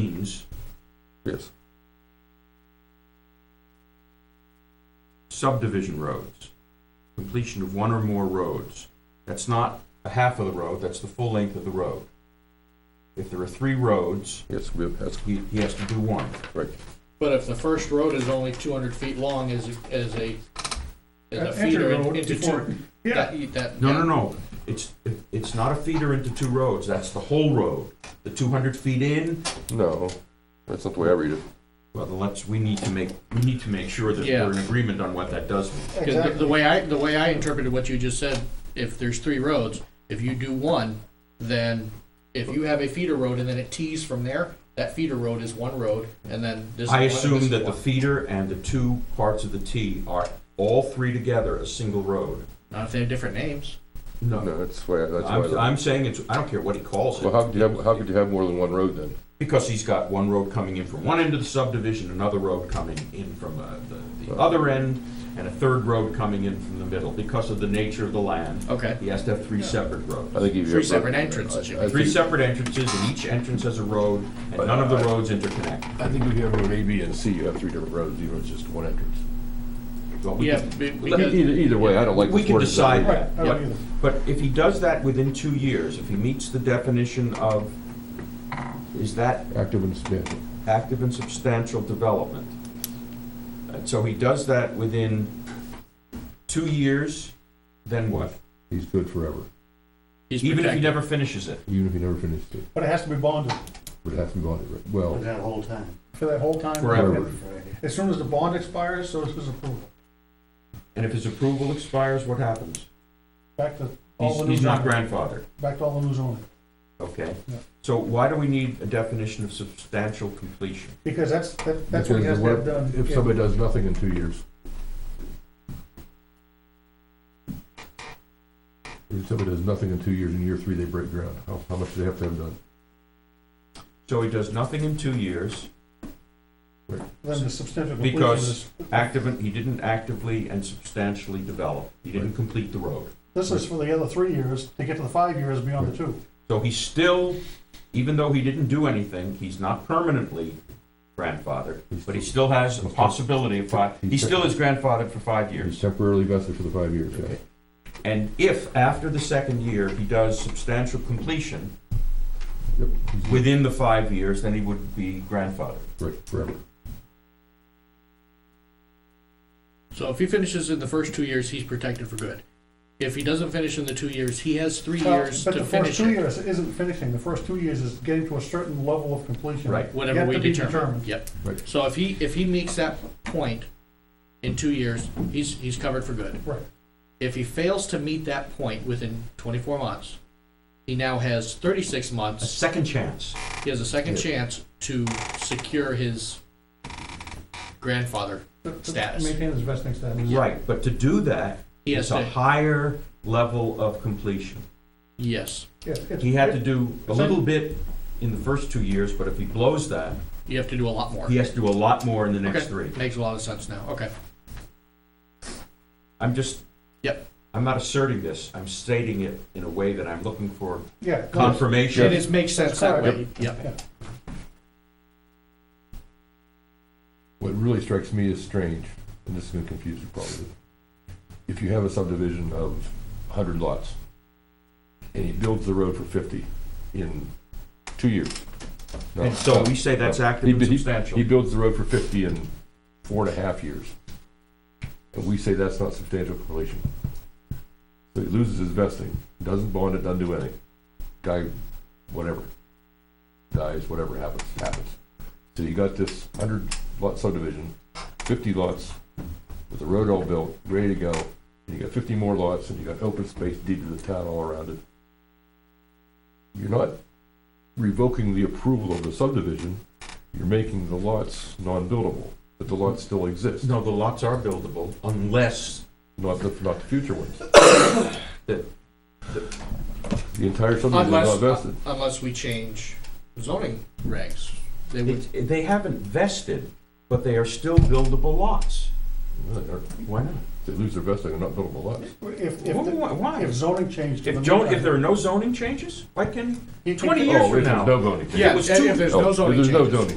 means Yes. subdivision roads, completion of one or more roads. That's not a half of the road, that's the full length of the road. If there are three roads, Yes, we have, that's he, he has to do one. correct. But if the first road is only two hundred feet long as, as a, as a Uh, Enter feeder road into before- two. Yeah, that- that- No, no, no, it's, it's not a feeder into two roads, that's the whole road. The two hundred feet in, No, that's not the way I read it. well, then let's, we need to make, we need to make sure that Yeah. we're in agreement on what that does mean. Because the, the way I, the way I interpreted what you just said, if there's three roads, if you do one, then if you have a feeder road and then it tees from there, that feeder road is one road, and then this. I one and this assume that the one. feeder and the two parts of the T are all three together a single road. Not if they have different names. No, that's why, that's I'm, why. I'm saying it's, I don't care what he calls Well, how it, could you have, how could you have more than one road then? because he's got one road coming in from one end of the subdivision, another road coming in from uh, the, the other end, and a third road coming in from the middle, because of the nature of the land. Okay. He has to have three separate I roads. think if you. Three have- separate entrances, you I- I Three think- separate entrances, and each entrance has a road, and none of the roads interconnect. I think if you have road A, B, and C, you have three different roads, even if it's just one entrance. Well, we Yeah, can- be- E- Either, because, either way, I don't like. We this can word design. decide that. Right, I don't but- either. But if he does that within two years, if he meets the definition of, is that Active and substantial. active and substantial development? And so he does that within two years, then what? He's good forever, he's Even if he protected. never finishes it. even if he never finishes it. but it has to be bonded But it has to be on it, well, That whole time. for that whole time. Forever. As soon as the bond expires, so is his approval. And if his approval expires, what happens? Back to all He's, the new he's not zoning. grandfathered. Back to all the new zoning. Okay. Yeah. So why do we need a definition of substantial completion? Because that's, that- that's what he has to have done. If Yeah. somebody does nothing in two years. If somebody does nothing in two years, in year three, they break ground, how, how much do they have to have done? So he does nothing in two years, Then the substantial completion Because- is, active, and- he didn't actively and substantially develop. He didn't complete the road. this is for the other three years, to get to the five years beyond the two. So he's still, even though he didn't do anything, he's not permanently grandfathered, but he still has a possibility of five, he still is grandfathered for five He's years. temporarily vested for the five years, yeah. And if, after the second year, he does substantial completion Yep, he's within the five years, then he would be grandfathered. break forever. So if he finishes in the first two years, he's protected for good. If he doesn't finish in the two years, he has three years But to the first finish two it. years isn't finishing, the first two years is getting to a certain level of completion. Right. Whatever Yet we to be determine, determined. yep. Right. So if he, if he meets that point in two years, he's, he's covered for good. Right. If he fails to meet that point within 24 months, he now has 36 A months. second chance. He has a second chance to secure his grandfather. But- but Status. Maintain his vesting status. Right, but to do that, He has it's a to, higher level of completion. yes, Yes, it's- He had to do a little bit in the first two years, but if he blows that, you have to do a lot more. he has to do a lot more in the next Okay, three. Makes a lot of sense now, okay. I'm just. Yep. I'm not asserting this, I'm stating it in a way that I'm looking for Yeah. It confirmation. is, makes sense that way, yep. What really strikes me as strange, and this is gonna confuse you probably, if you have a subdivision of hundred lots, and he builds the road for fifty in two years. No, And so we say that's active He- and he- substantial. He builds the road for fifty in four and a half years. And we say that's not substantial completion. So he loses his vesting, doesn't bond it, doesn't do anything. Guy, whatever. Dies, whatever happens, happens. So you got this hundred lot subdivision, fifty lots, with the road all built, ready to go. And you got fifty more lots and you got open space deeded to the town all around it. You're not revoking the approval of the subdivision, you're making the lots non-buildable, but the lots still exist, No, the lots are buildable unless, not the, not the future ones. The- The entire subdivision Unless- uh, is not vested. Unless we change zoning regs, they would, it- they haven't vested, but they are still buildable lots. No, they aren't. Why not? They lose their vesting, they're not buildable lots. If, if, Why- the- Why? if zoning changed. to If the zone, new- if there are no zoning changes, why can, he- he- 20 Oh, years if from there's now. No zoning. Yeah, Yeah, it was and two- if there's Oh, no if zoning There's no changes. zoning.